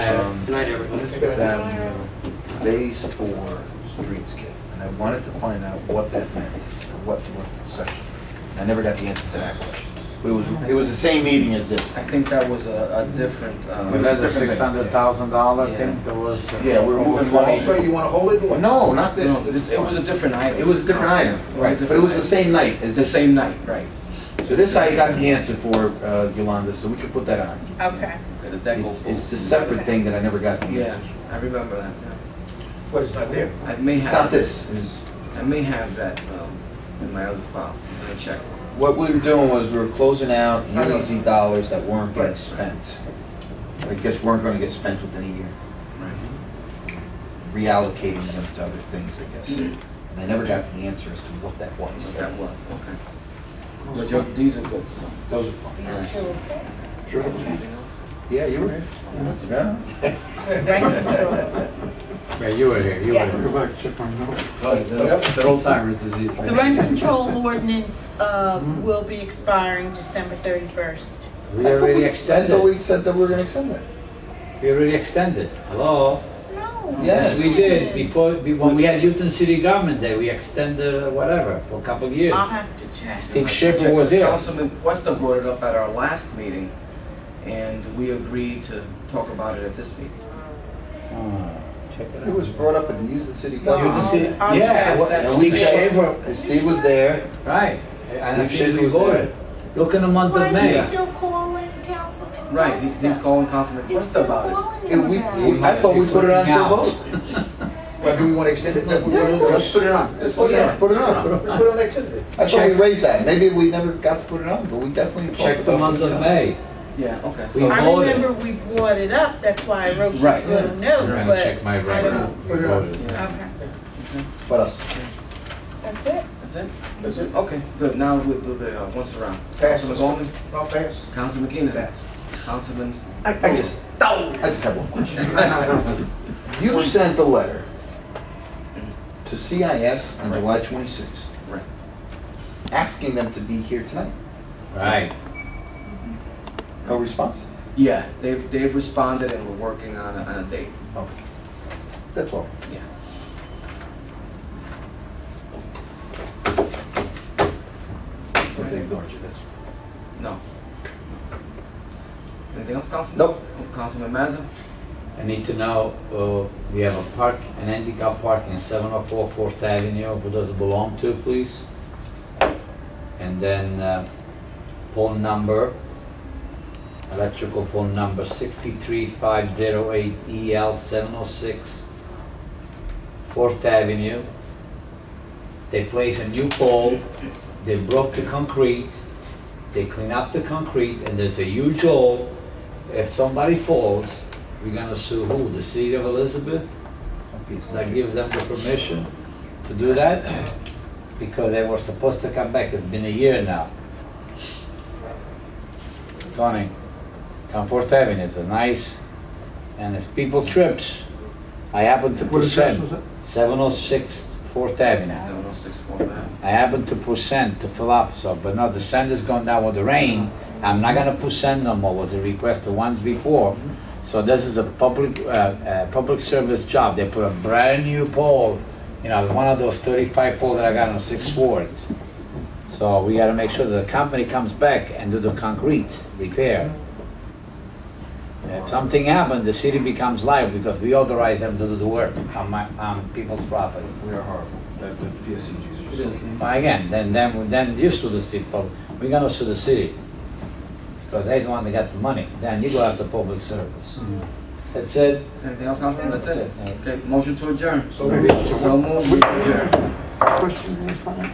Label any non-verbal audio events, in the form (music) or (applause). um, Good night, everyone. Elizabeth Avenue, phase four streetscape. And I wanted to find out what that meant, or what, what section. I never got the answer to that question. It was, it was the same meeting as this. I think that was a, a different, It uh, was- Another six hundred thousand dollar Yeah. thing, there was. uh, Yeah, we're moving money. Also, you want to hold it? or- No, not no, this. this- This- it was a different item. It was a different item, It was a right? But it different was the item. same night as The this. same night, right. So this I got the answer for, uh, Yolanda, so we could put that on. Okay. The deck It's, will- it's the separate thing that I never got the Yeah, answer. I remember that. But it's not there. I may It's not have, this, it's. I may have that, um, in my other file, I'm gonna check. What we were doing was we were closing out I know. UEZ dollars that weren't getting Right. spent. I guess weren't gonna get spent within a year, Right. reallocating them to other things, I guess. And I never got the answer as to what that What that was. was, Mm-hmm. okay. But your, these are good, so. Those are fun. These two, Anything else? Yeah, you were here. Yeah. right control. Yeah, you were here, you were Yes. here. The whole time. The rent control ordinance uh, will be expiring December 31st. We already I thought extended, we said that we were gonna extend it. we already extended. Hello? No. Yes. Yes, we did, before, be- when we had Newton City Government Day, we extended uh, whatever, for a couple of years. I'll have to check. Steve Schaefer was here. Councilman Questa brought it up at our last meeting, and we agreed to talk about it at this meeting. Ah, Check it It out. was brought up at the Houston City Newton I'll- Government. City, I'll yeah, check what- that. and we Steve Schaefer, And Steve was there, right. And I Steve think Schaefer we was there. voted. Look in the month of Why is May. he still calling Councilman Right, he- he's Questa? calling Councilman He's Questa still about calling and him we, about we- it. I thought we put it on for a vote. But do we want to extend it? Let's Yeah, of course. put it on. Let's Let's put it on, put it on. Let's put it on next Saturday. I thought we raised that, maybe we never got to put it on, but we definitely. talked Check the about month putting it of on. May. it. Yeah, okay. We So I voted. remember we brought it up, that's why I wrote Right. this little note, but I don't. Put it on. Yeah. Okay, What else? that's it. That's it? That's it. Okay, good. Now we'll do the, uh, once around. Pass. Councilman Goldman, I'll pass. Councilman Keenan, Councilman. (laughs) I, I just, I just have one question. You sent a letter to CIS on July 26th. Right. Asking them to be here tonight. Right. No response? Yeah, they've, they've responded and we're working on a, on a date. Okay. That's all. But they ignored you, that's. No. Anything else, Councilman? Nope. Councilman Mazza? I need to know, uh, we have a park, an handicap parking, seven oh four Fourth Avenue, who does it belong to, please? And then, uh, phone number, electrical phone number sixty-three five zero eight EL seven oh six, Fourth Avenue. They place a new pole, they broke the concrete, they clean up the concrete, and there's a huge hole. If somebody falls, we're gonna sue who? The city of Elizabeth? That gives them the permission to do that? Because they were supposed to come back, it's been a year now. Tony, come Fourth Avenue is a nice, and if people trips, I happen to present, seven oh six Fourth Avenue. Seven oh six four nine. I happen to put sand to fill up, so, but no, the sand has gone down with the rain. I'm not gonna put sand no more, was a request the ones before. So this is a public, uh, uh, public service job. They put a brand new pole, you know, one of those thirty-five pole that I got on Sixth Ward. So we gotta make sure that the company comes back and do the concrete repair. If something happened, the city becomes liable because we authorize them to do the work on my, on people's property. We are horrible. That- E The PSCGs are so- Well, Again, then, then, then you sue the city, but we're gonna sue the city. Because they don't want to get the money, then you go after public service. That's it. Anything else, Councilman? That's it. That's it. Okay, motion to adjourn. So maybe. So moved. Adjourn.